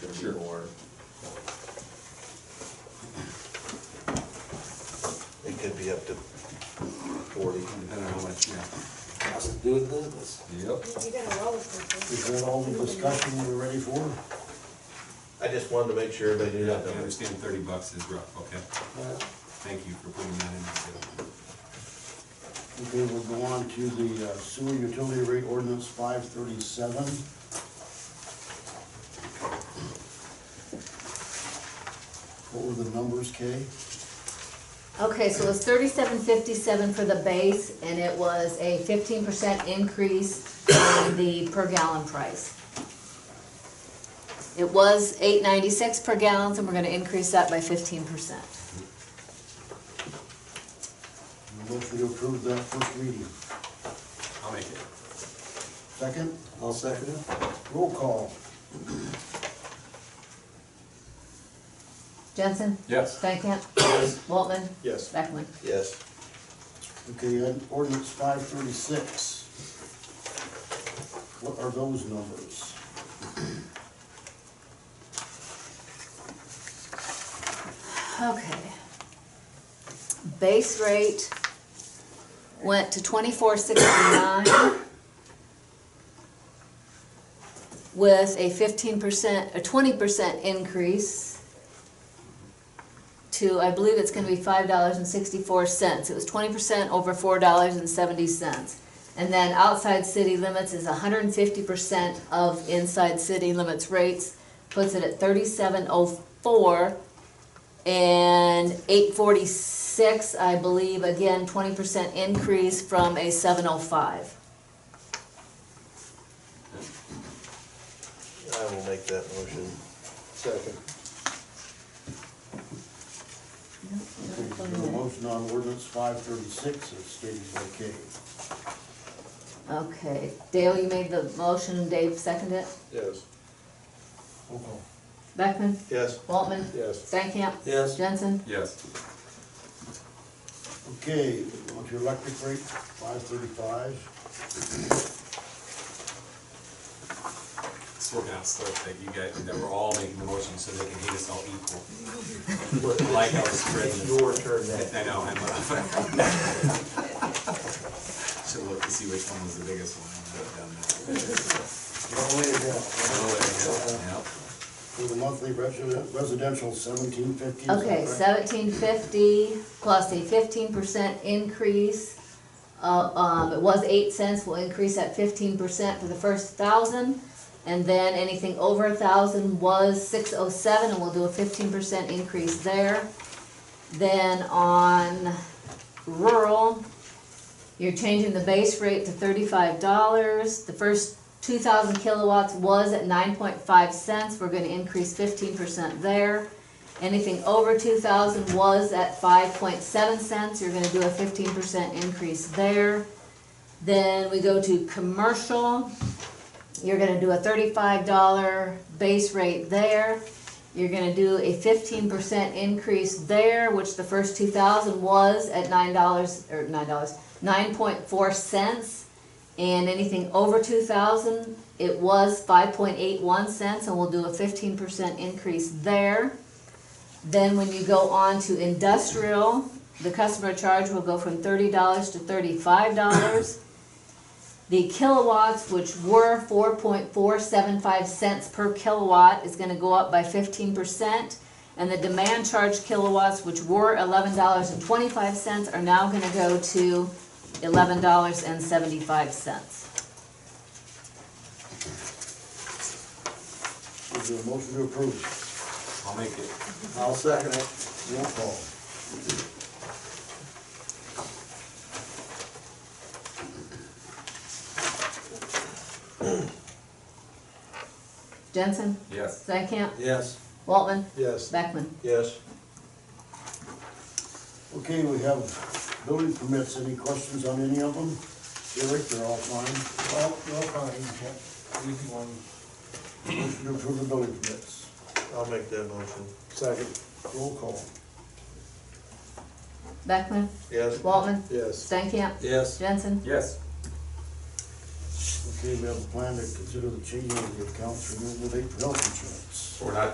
Sure. more. It could be up to forty. depending on how much, yeah. Has to do with business. Yep. You got a roller coaster. Is that all the discussion we're ready for? I just wanted to make sure everybody knew Yeah, I that number. understand thirty bucks is rough, okay? Thank you for putting that in. Okay, we'll go on to the uh, sewer utility rate ordinance five thirty-seven. What were the numbers, Kay? Okay, so it was thirty-seven fifty-seven for the base, and it was a fifteen percent increase in the per gallon price. It was eight ninety-six per gallon, and we're gonna increase that by fifteen percent. Motion to approve that first reading. I'll make it. Second, I'll second it. roll call. Jensen? Yes. Van Camp? Waltman? Yes. Beckman? Yes, Okay, and ordinance five thirty-six. What are those numbers? Okay. Base rate went to twenty-four sixty-nine with a fifteen percent, a twenty percent increase to, I believe it's gonna be five dollars and sixty-four cents. It was twenty percent over four dollars and seventy cents. And then outside city limits is hundred and fifty percent of inside city limits rates, puts it at thirty-seven oh four and eight forty-six, I believe, again, twenty percent increase from a seven oh five. I will make that motion. Second. Okay, we have a motion on ordinance five thirty-six as stated by Kay. Okay, Dale, you made the motion, Dave seconded it, Yes. Roll call. Beckman, Yes. Waltman, Yes. Stankamp. Yes. Jensen. Yes. Okay, on to electric rate, five thirty-five. So we're gonna start that you guys, that we're all making the motion so they can hate us all equal. I Like how it's It's written. your turn now. I know, I'm up. Should look to see which one was the biggest one. I don't know. All the way down. Oh, yeah, yeah. For the monthly resi- residential, seventeen fifty. Okay, seventeen fifty plus a fifteen percent increase. Uh, um, it was eight cents, we'll increase at fifteen percent for the first thousand. And then anything over a thousand was six oh seven, and we'll do a fifteen percent increase there. Then on rural, you're changing the base rate to thirty-five dollars. The first two thousand kilowatts was at nine point five cents, we're gonna increase fifteen percent there. Anything over two thousand was at five point seven cents, you're gonna do a fifteen percent increase there. Then we go to commercial, you're gonna do a thirty-five dollar base rate there. You're gonna do a fifteen percent increase there, which the first two thousand was at nine dollars, or nine dollars, nine point four cents. And anything over two thousand, it was five point eight one cents, and we'll do a fifteen percent increase there. Then when you go on to industrial, the customer charge will go from thirty dollars to thirty-five dollars. The kilowatts, which were four point four seven five cents per kilowatt, is gonna go up by fifteen percent. And the demand charge kilowatts, which were eleven dollars and twenty-five cents, are now gonna go to eleven dollars and seventy-five cents. Is there a motion to approve? I'll make it. I'll second it. Roll call. Jensen? Yes. Stankamp? Yes. Waltman? Yes. Beckman? Yes. Okay, we have building permits. Any questions on any of them? Eric, they're all fine. Well, no fine, yeah, easy one. Motion to approve the building permits. I'll make that motion. Second. Roll call. Beckman? Yes. Waltman? Yes. Stankamp? Yes. Jensen? Yes. Okay, we have a plan to consider the changing of the accounts renewable date for health insurance. We're not